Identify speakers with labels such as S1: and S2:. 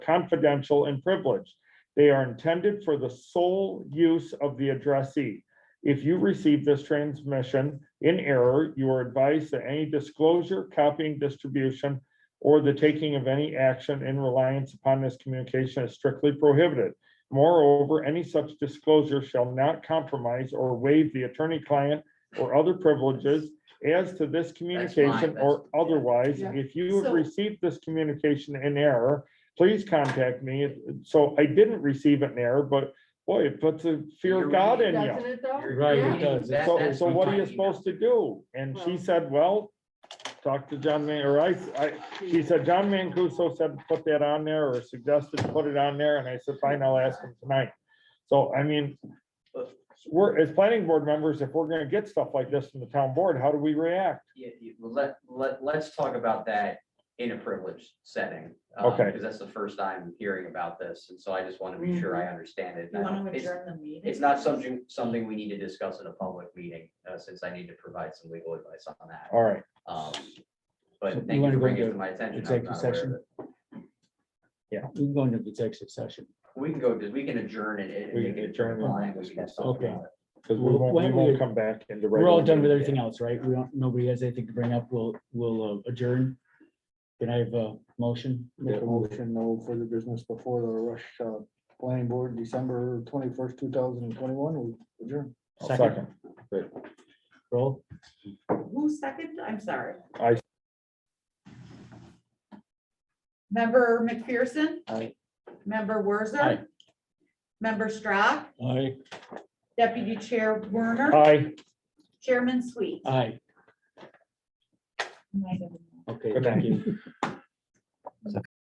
S1: confidential and privileged. They are intended for the sole use of the addressee. If you receive this transmission in error, you are advised that any disclosure, copying, distribution, or the taking of any action in reliance upon this communication is strictly prohibited. Moreover, any such disclosure shall not compromise or waive the attorney-client or other privileges as to this communication or
S2: that's-
S1: otherwise.
S3: Yeah.
S1: If you have
S3: So-
S1: received this communication in error, please contact me. So I didn't receive it in error, but boy, it puts a fear of God in you.
S3: Doesn't it though?
S2: Right,
S3: Yeah.
S2: it does. That-
S1: So,
S2: that's
S1: so what are you
S2: my email.
S1: supposed to do? And she
S3: Well-
S1: said, well, talk to John Man, or I, I, she said, John Mancuso said, to put that on there or suggested to put it on there. And I said, fine, I'll ask him tonight. So I mean, we're, as planning board members, if we're gonna get stuff like this from the town board, how do we react?
S2: Yeah, you- well, let, let, let's talk about that in a privileged setting. uh,
S1: Okay.
S2: Because that's the first I'm hearing about this, and so I just want to be sure I understand it.
S4: Mm-hmm. You want to
S2: It's-
S4: adjourn the meeting?
S2: It's not something, something we need to discuss in a public meeting, uh, since I need to provide some legal advice on that.
S1: All right,
S2: Um,
S5: So
S2: But
S5: you
S2: thank you
S5: wanna
S2: for
S5: go
S2: bringing it
S5: to
S2: to my attention. I was
S5: executive
S2: not aware of
S5: session?
S2: it.
S5: We can go into the executive session.
S2: We can go, we can adjourn it and
S1: We
S2: make
S1: can
S2: it
S1: adjourn it.
S2: compliant, we can have something
S5: Okay.
S2: on it.
S1: because we won't, we
S5: When
S1: won't
S5: we-
S1: come back into.
S5: We're all
S1: regular
S5: done with
S1: meeting.
S5: everything else, right? We don't, nobody has anything to bring up. We'll, we'll uh, adjourn. Can I have a motion?
S6: Make a motion, no further business before the rush, uh, planning board, December twenty-first, two thousand and twenty-one, we adjourn.
S1: I'll
S5: Second,
S1: Second,
S5: roll.
S4: Who seconded? I'm sorry.
S1: I-
S4: Member McPherson?
S6: Aye.
S4: Member
S5: Aye.
S4: Werzer? Member Strack?
S5: Aye.
S4: Deputy Chair Werner?
S1: aye,
S4: Chairman Sweet?
S5: Aye.
S4: Nice of you.
S5: Okay,
S1: Good night.
S5: thank you.